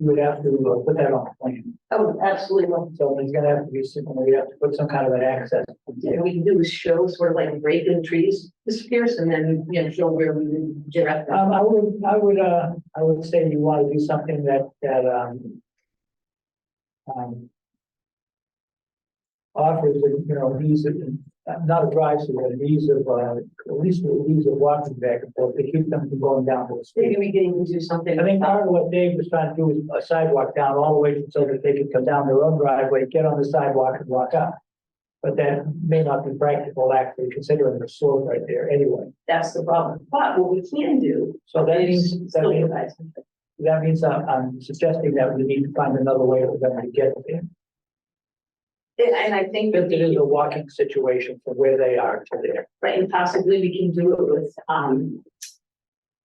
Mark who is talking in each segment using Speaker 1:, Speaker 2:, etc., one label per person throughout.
Speaker 1: you would have to uh, put that on the plan.
Speaker 2: Oh, absolutely.
Speaker 1: So there's gonna have to be some, we have to put some kind of an access. Um,
Speaker 2: And we can do is show sort of like break in trees, disappears and then, you know, show where we would direct them.
Speaker 1: Um, I would, I would, uh, I would say you wanna do something that, that, um. Um. Offers, you know, ease of, not a drive through, but an ease of, uh, at least an ease of walking back and forth to keep them from going down to the street.
Speaker 2: Maybe we can do something.
Speaker 1: I think part of what Dave was trying to do is a sidewalk down all the way so that they could come down their own driveway, get on the sidewalk and walk up. But that may not be practical actually considering the slope right there anyway.
Speaker 2: That's the problem. But what we can do
Speaker 1: So that
Speaker 2: is
Speaker 1: means, that
Speaker 2: still
Speaker 1: means,
Speaker 2: provide something.
Speaker 1: that means I'm, I'm suggesting that we need to find another way for them to get there.
Speaker 2: And and I think that
Speaker 1: Because it is
Speaker 2: we,
Speaker 1: a walking situation from where they are to there.
Speaker 2: right, and possibly we can do it with, um,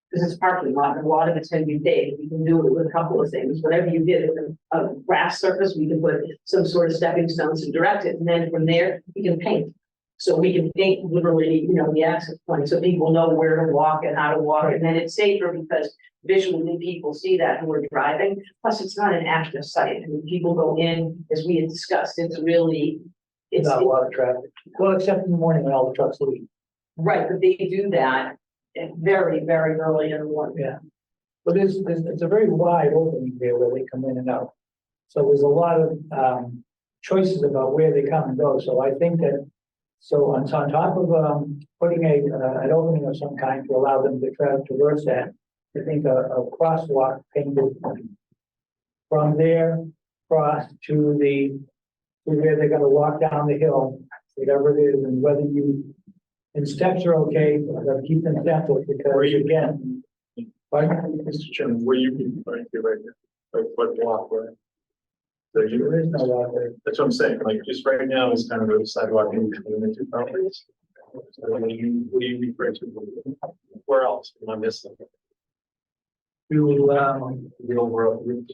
Speaker 2: because it's parking lot, and a lot of it's gonna be big. We can do it with a couple of things, whatever you did with a, a grass surface, we can put some sort of stepping stones to direct it. And then from there, we can paint. So we can paint literally, you know, the access point, so people know where to walk and how to walk. And then it's safer because visually people see that who are driving. Plus, it's not an active site. I mean, people go in, as we had discussed, it's really, it's,
Speaker 1: Not a lot of traffic. Well, except in the morning when all the trucks leave.
Speaker 2: Right, but they do that at very, very early in the morning.
Speaker 1: But there's, there's, it's a very wide opening there where they come in and out. So there's a lot of, um, choices about where they come and go, so I think that. So on, on top of, um, putting a, uh, an opening of some kind to allow them to tra- traverse that, I think a, a crosswalk painted. From there, cross to the, to where they're gonna walk down the hill, whatever it is, and whether you. And steps are okay, but keep them separate
Speaker 3: Or
Speaker 1: because
Speaker 3: you-
Speaker 1: again. Pardon?
Speaker 3: Mr. Chairman, where you can, right here, right here, like what block, where? There you
Speaker 1: There is no walkway.
Speaker 3: That's what I'm saying, like, just right now is kind of a sidewalk in between the two properties. So what do you, what do you refer to? Where else am I missing?
Speaker 1: You, um,
Speaker 3: The overall.
Speaker 1: you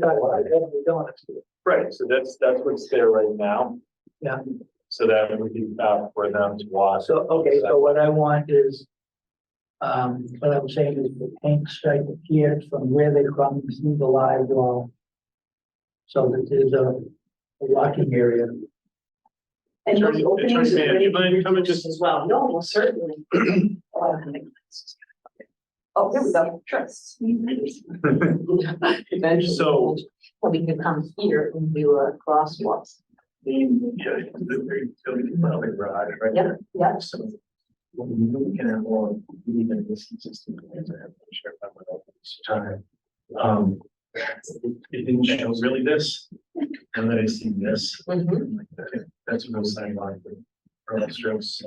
Speaker 1: thought, well, we don't have to.
Speaker 3: Right, so that's, that's what's there right now.
Speaker 1: Yeah.
Speaker 3: So that we can, uh, for them to watch.
Speaker 1: So, okay, so what I want is, um, what I'm saying is the paint stripe here from where they come through the live wall. So that there's a a walking area.
Speaker 2: And those
Speaker 3: Attorney-
Speaker 2: openings.
Speaker 3: Attorney
Speaker 2: are ready
Speaker 3: Mann, do you mind coming
Speaker 2: to use
Speaker 3: just-
Speaker 2: As well, no, well, certainly. Oh, there we go, trust. Eventually.
Speaker 3: So-
Speaker 2: Well, we can come here and do a crosswalk.
Speaker 3: Yeah.
Speaker 2: Yeah, yeah.
Speaker 3: So. When you can have more, even this consistent. Um. It it didn't show really this, and then I see this,
Speaker 2: Mhm.
Speaker 3: and like, okay, that's a real sign line for. Earl strokes.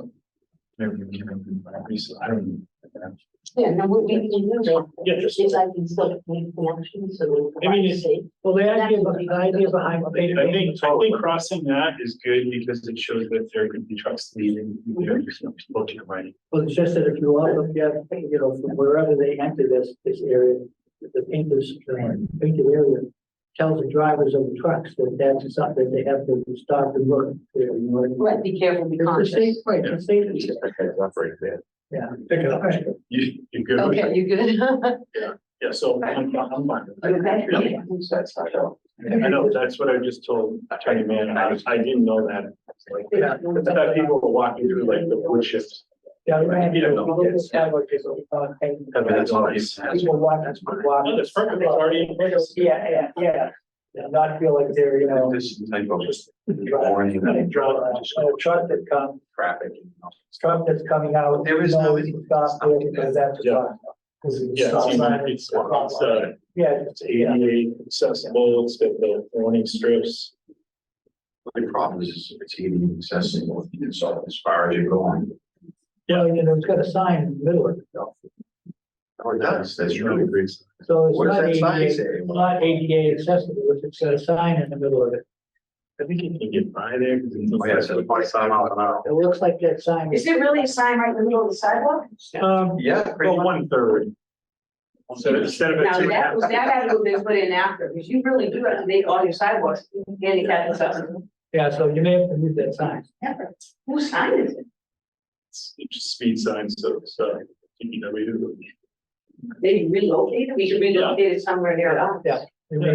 Speaker 3: Maybe we can have them, at least, I don't.
Speaker 2: Yeah, no, we, we can use it.
Speaker 3: Yeah, just-
Speaker 2: If I can still make connections, so we'll.
Speaker 3: I mean, it's-
Speaker 2: see.
Speaker 1: Well, the
Speaker 2: idea-
Speaker 1: the idea behind.
Speaker 3: I think, I think crossing that is good because it shows that there could be trucks leaving, you know, there's no people to your right.
Speaker 1: Well, it's just that if you all look at, you know, from wherever they enter this, this area, the painted, the painted area tells the drivers of the trucks that that's something they have to stop and look. you know what I mean?
Speaker 2: Right, be careful, be
Speaker 1: It's the safe,
Speaker 2: conscious.
Speaker 1: right, it's the safe. Yeah.
Speaker 3: You, you're good with
Speaker 2: Okay,
Speaker 3: it?
Speaker 2: you good?
Speaker 3: Yeah, so I'm, I'm fine. with
Speaker 2: You okay?
Speaker 3: that. Yeah. I know, that's what I just told Attorney Man, and I, I didn't know that. Like,
Speaker 1: Yeah.
Speaker 3: But that people were walking through like the wood chips.
Speaker 1: Yeah, we
Speaker 3: You don't know. Have it
Speaker 1: People
Speaker 3: all these-
Speaker 1: walk, that's walk.
Speaker 3: No, that's perfect, it's already in place.
Speaker 1: Yeah, yeah, yeah. Yeah, Not feel like they're, you know.
Speaker 3: This is like, well, just
Speaker 1: driving.
Speaker 3: warning.
Speaker 1: Drive, uh, A truck that comes,
Speaker 3: traffic.
Speaker 1: truck that's coming out.
Speaker 4: There is no-
Speaker 1: Stop there because that's. a stop. Because it's a
Speaker 3: Yeah,
Speaker 1: stop sign,
Speaker 3: it's, it's,
Speaker 1: a stop
Speaker 3: it's,
Speaker 1: sign.
Speaker 3: uh,
Speaker 1: Yeah,
Speaker 3: it's ADA accessible, it's got the warning strips.
Speaker 4: The problem is it's eating accessible, you can solve as far as you're going.
Speaker 1: well, you know, it's got a sign in the middle of it, though.
Speaker 4: Or Oh, it does, that's really great.
Speaker 1: so it's
Speaker 4: What
Speaker 1: not
Speaker 4: does that sign
Speaker 1: ADA,
Speaker 4: say?
Speaker 1: not ADA accessible, if it's got a sign in the middle of it.
Speaker 3: I think you can get by there. 'cause it's-
Speaker 4: Oh, yeah, so twenty-five miles an hour.
Speaker 1: It looks like that sign.
Speaker 2: Is there really a sign right in the middle of the sidewalk?
Speaker 1: Um,
Speaker 4: Yeah. pretty
Speaker 3: Well,
Speaker 4: much.
Speaker 3: one third. So instead of. a
Speaker 2: Now,
Speaker 3: two and a half-
Speaker 2: that was, that had to have been put in after, because you really do have to make all your sidewalks handicap accessible.
Speaker 1: yeah, so you may have to move that sign.
Speaker 2: Whose sign is it?
Speaker 3: It's just speed signs, so, so, you know, we do.
Speaker 2: Maybe relocate it, we should relocate it somewhere near. us.
Speaker 1: Yeah. You may